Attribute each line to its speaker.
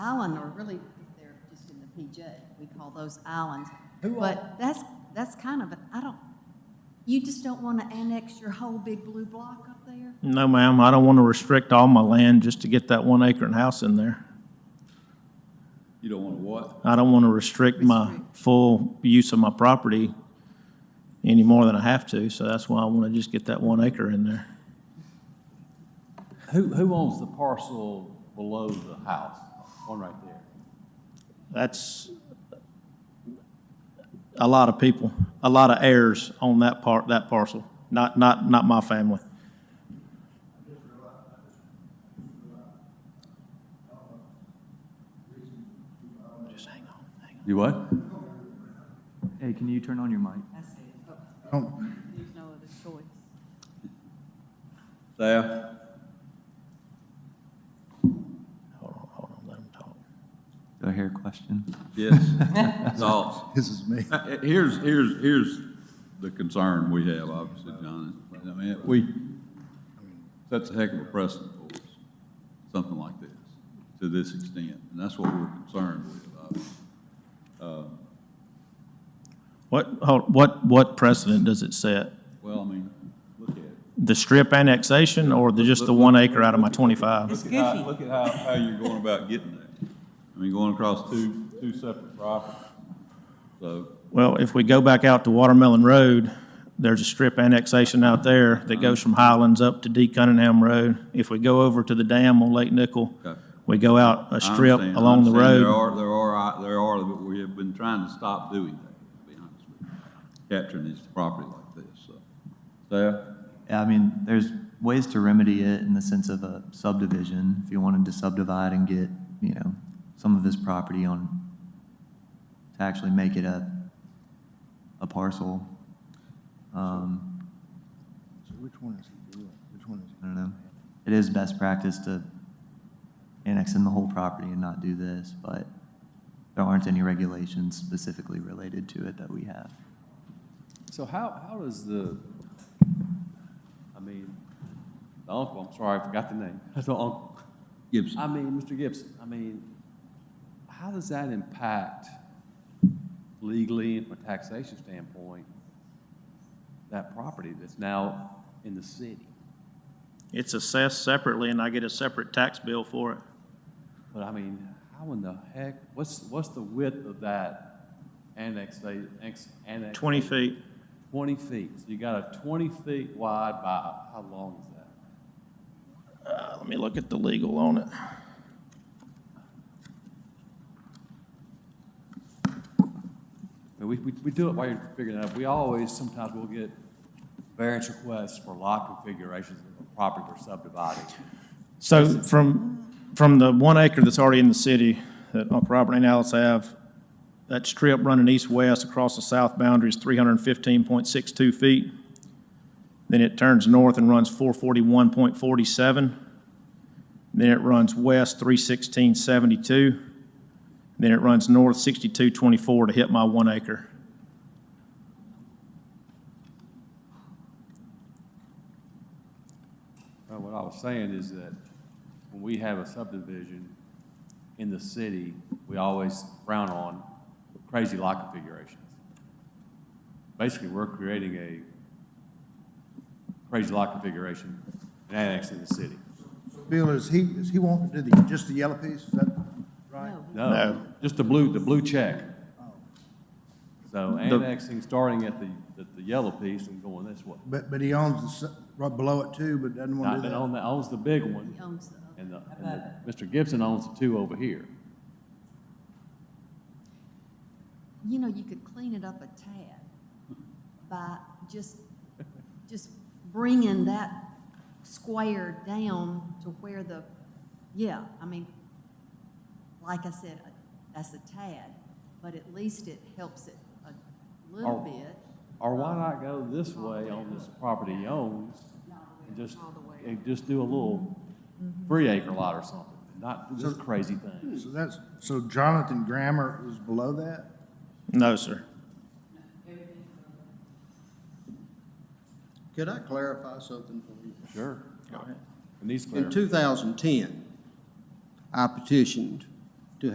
Speaker 1: island, or really, if they're just in the PJ, we call those islands.
Speaker 2: Who
Speaker 1: But that's, that's kind of, a- I don't, you just don't want to annex your whole big blue block up there?
Speaker 3: No, ma'am, I don't want to restrict all my land just to get that one acre and house in there.
Speaker 4: You don't want to what?
Speaker 3: I don't want to restrict my
Speaker 1: Restrict.
Speaker 3: full use of my property any more than I have to, so that's why I want to just get that one acre in there.
Speaker 4: Who, who owns the parcel below the house? One right there.
Speaker 3: That's a lot of people, a lot of heirs on that part, that parcel, not, not, not my family. Just hang on, hang on.
Speaker 4: You what?
Speaker 5: Hey, can you turn on your mic?
Speaker 1: There's no other choice.
Speaker 4: Staff?
Speaker 3: Hold on, hold on, let him talk.
Speaker 5: Do I hear a question?
Speaker 4: Yes. Thoughts?
Speaker 6: This is me.
Speaker 4: Uh, uh, Here's, here's, here's the concern we have, obviously, John. I mean, we, that's a heck of a precedent for us, something like this, to this extent. And that's what we're concerned with, obviously.
Speaker 3: What, hold- what, what precedent does it set?
Speaker 4: Well, I mean, look at it.
Speaker 3: The strip annexation or the, just the one acre out of my twenty-five?
Speaker 4: Look at how, look at how, how you're going about getting there. I mean, going across two, two separate properties. So,
Speaker 3: Well, if we go back out to Watermelon Road, there's a strip annexation out there that goes from Highlands up to D Cunningham Road. If we go over to the dam on Lake Nickel,
Speaker 4: okay.
Speaker 3: we go out a
Speaker 4: I
Speaker 3: strip
Speaker 4: understand, I
Speaker 3: along the
Speaker 4: understand. There
Speaker 3: road.
Speaker 4: are, there are, there are, but we have been trying to stop doing that, to be honest with you, capturing these property like this, so. Staff?
Speaker 5: Yeah, I mean, there's ways to remedy it in the sense of a subdivision. If you wanted to subdivide and get, you know, some of this property on, to actually make it a, a parcel. Um,
Speaker 6: So which one is he doing? Which one is he?
Speaker 5: I don't know. It is best practice to annex in the whole property and not do this, but there aren't any regulations specifically related to it that we have.
Speaker 7: So how, how does the, I mean, the uncle, I'm sorry, I forgot the name, the uncle.
Speaker 4: Gibson?
Speaker 7: I mean, Mr. Gibson, I mean, how does that impact legally and from a taxation standpoint, that property that's now in the city?
Speaker 3: It's assessed separately and I get a separate tax bill for it.
Speaker 7: But I mean, how in the heck, what's, what's the width of that annexa, annex? annex-
Speaker 3: Twenty feet,
Speaker 7: 20 feet. So you got a 20 feet wide by, how long is that?
Speaker 3: uh, let me look at the legal on it.
Speaker 7: I mean, We, we, we do it while you're figuring it out. We always, sometimes we'll get variance requests for lot configurations of a property we're subdividing.
Speaker 3: So from, from the one acre that's already in the city that Uncle Robert and Alice have, that strip running east-west across the south boundary is three hundred and fifteen point six two feet. Then it turns north and runs four forty-one point forty-seven. Then it runs west three sixteen seventy-two. Then it runs north sixty-two twenty-four to hit my one acre.
Speaker 7: Uh, What I was saying is that when we have a subdivision in the city, we always frown on crazy lot configurations. Basically, we're creating a crazy lot configuration and annexing the city.
Speaker 6: Bill, is he, is he wanting to do the, just the yellow piece? Is that right?
Speaker 1: No,
Speaker 3: No.
Speaker 7: Just the blue, the blue check. So
Speaker 3: The-
Speaker 7: annexing, starting at the, at the yellow piece and going this way.
Speaker 6: But, but he owns the, s- right below it too, but doesn't want to
Speaker 7: Not
Speaker 6: do
Speaker 7: that
Speaker 6: that.
Speaker 7: own- that owns the big
Speaker 1: he
Speaker 7: one,
Speaker 1: owns the other.
Speaker 7: and the, and the, Mr. Gibson owns the two over here.
Speaker 1: You know, you could clean it up a tad by just, just bringing that square down to where the, yeah, I mean, like I said, that's a tad, but at least it helps it a little
Speaker 7: Or-
Speaker 1: bit.
Speaker 7: Or why not go this way on this property he owns, and just,
Speaker 1: All the way.
Speaker 7: and just do a little three acre lot or something, not this crazy thing.
Speaker 6: So that's, so Jonathan Grammer is below that?
Speaker 3: No, sir.
Speaker 8: Could I clarify something for you?
Speaker 7: Sure. It needs
Speaker 8: In
Speaker 7: clarity.
Speaker 8: 2010, I petitioned